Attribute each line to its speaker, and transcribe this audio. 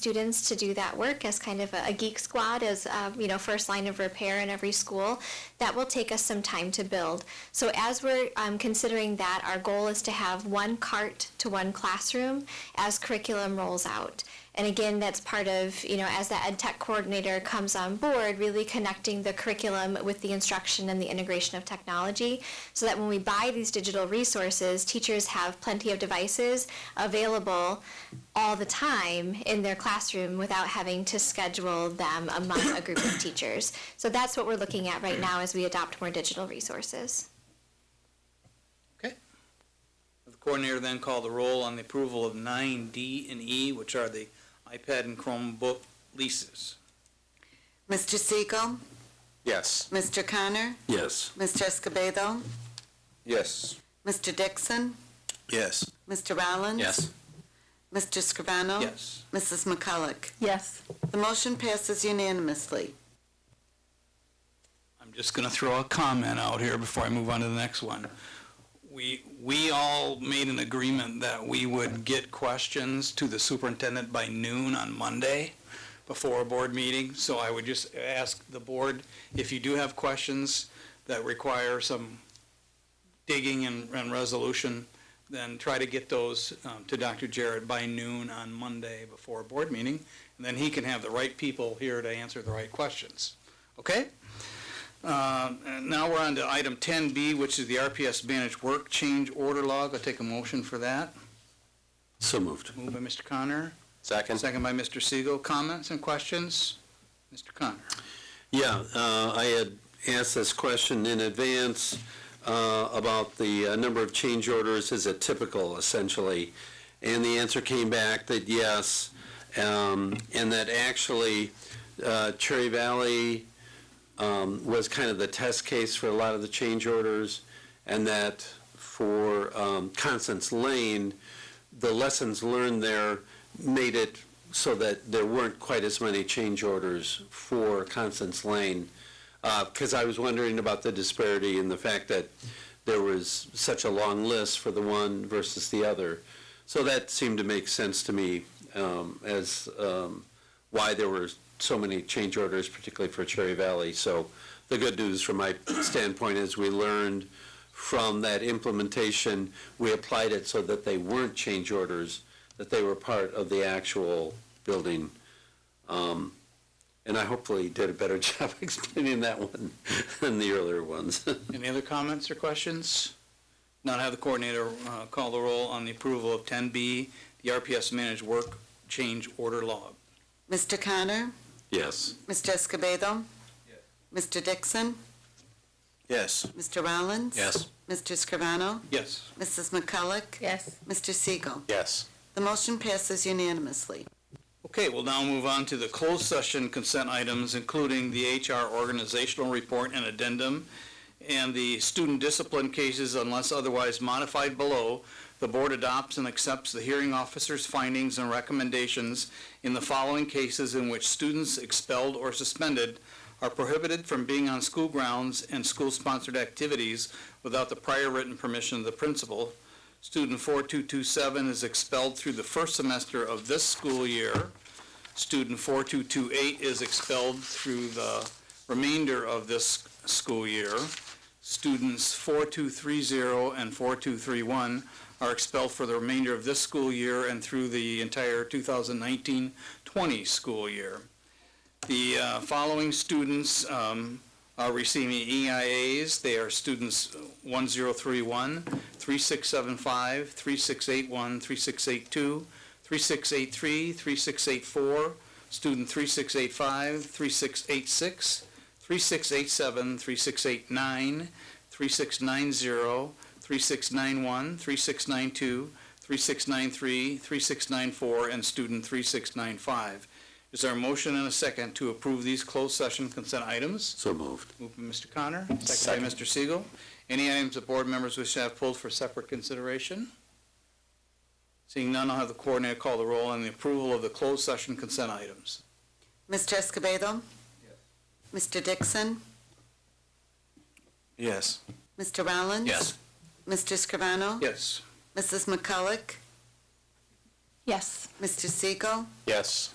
Speaker 1: students to do that work as kind of a a geek squad, as, uh, you know, first line of repair in every school. That will take us some time to build. So as we're um, considering that, our goal is to have one cart to one classroom as curriculum rolls out. And again, that's part of, you know, as the ed tech coordinator comes on board, really connecting the curriculum with the instruction and the integration of technology so that when we buy these digital resources, teachers have plenty of devices available all the time in their classroom without having to schedule them among a group of teachers. So that's what we're looking at right now as we adopt more digital resources.
Speaker 2: Okay. The coordinator then called the roll on the approval of nine D and E, which are the iPad and Chromebook leases.
Speaker 3: Mr. Siegel,
Speaker 4: Yes.
Speaker 3: Mr. Connor,
Speaker 4: Yes.
Speaker 3: Mr. Escobedo,
Speaker 4: Yes.
Speaker 3: Mr. Dixon,
Speaker 4: Yes.
Speaker 3: Mr. Rollins. Mr. Scrivano.
Speaker 2: Yes.
Speaker 3: Mrs. McCulloch.
Speaker 5: Yes.
Speaker 3: The motion passes unanimously.
Speaker 2: I'm just gonna throw a comment out here before I move on to the next one. We, we all made an agreement that we would get questions to the superintendent by noon on Monday before a board meeting, so I would just ask the board, if you do have questions that require some digging and, and resolution, then try to get those um, to Dr. Jarrett by noon on Monday before a board meeting, and then he can have the right people here to answer the right questions. Okay? Uh, and Now we're on to item 10B, which is the RPS managed work change order log. I'll take a motion for that.
Speaker 4: So moved.
Speaker 2: Moved by Mr. Connor,
Speaker 4: Second?
Speaker 2: second by Mr. Siegel. Comments and questions? Mr. Connor?
Speaker 6: Yeah, uh, I had asked this question in advance uh, about the uh, number of change orders, is it typical essentially? And the answer came back that yes, um, and that actually uh, Cherry Valley um, was kind of the test case for a lot of the change orders, and that for um, Constance Lane, the lessons learned there made it so that there weren't quite as many change orders for Constance Lane. Because I was wondering about the disparity and the fact that there was such a long list for the one versus the other. So that seemed to make sense to me um, as um, why there were so many change orders, particularly for Cherry Valley. So the good news from my standpoint is we learned from that implementation, we applied it so that they weren't change orders, that they were part of the actual building. Um, And I hopefully did a better job explaining that one than the earlier ones.
Speaker 2: Any other comments or questions? Not have the coordinator uh, call the roll on the approval of 10B, the RPS managed work change order log.
Speaker 3: Mr. Connor,
Speaker 6: Yes.
Speaker 3: Mr. Escobedo, Mr. Dixon,
Speaker 4: Yes.
Speaker 3: Mr. Rollins.
Speaker 4: Yes.
Speaker 3: Mr. Scrivano,
Speaker 2: Yes.
Speaker 3: Mrs. McCulloch,
Speaker 5: Yes.
Speaker 3: Mr. Siegel.
Speaker 4: Yes.
Speaker 3: The motion passes unanimously.
Speaker 2: Okay, we'll now move on to the closed session consent items, including the HR organizational report and addendum, and the student discipline cases unless otherwise modified below. The board adopts and accepts the hearing officer's findings and recommendations in the following cases in which students expelled or suspended are prohibited from being on school grounds and school-sponsored activities without the prior written permission of the principal. Student 4227 is expelled through the first semester of this school year. Student 4228 is expelled through the remainder of this school year. Students 4230 and 4231 are expelled for the remainder of this school year and through the entire 2019-20 school year. The uh, following students um, are receiving EIAs. They are students 1031, 3675, 3681, 3682, 3683, 3684, student 3685, 3686, 3687, 3689, 3690, 3691, 3692, 3693, 3694, and student 3695. Is there a motion and a second to approve these closed session consent items?
Speaker 6: So moved.
Speaker 2: Moved by Mr. Connor, seconded by Mr. Siegel. Any items that board members wish to have pulled for separate consideration? Seeing none, I'll have the coordinator call the roll on the approval of the closed session consent items.
Speaker 3: Mr. Escobedo, Mr. Dixon,
Speaker 4: Yes.
Speaker 3: Mr. Rollins. Mr. Scrivano,
Speaker 2: Yes.
Speaker 3: Mrs. McCulloch,
Speaker 5: Yes.
Speaker 3: Mr. Siegel,
Speaker 4: Yes.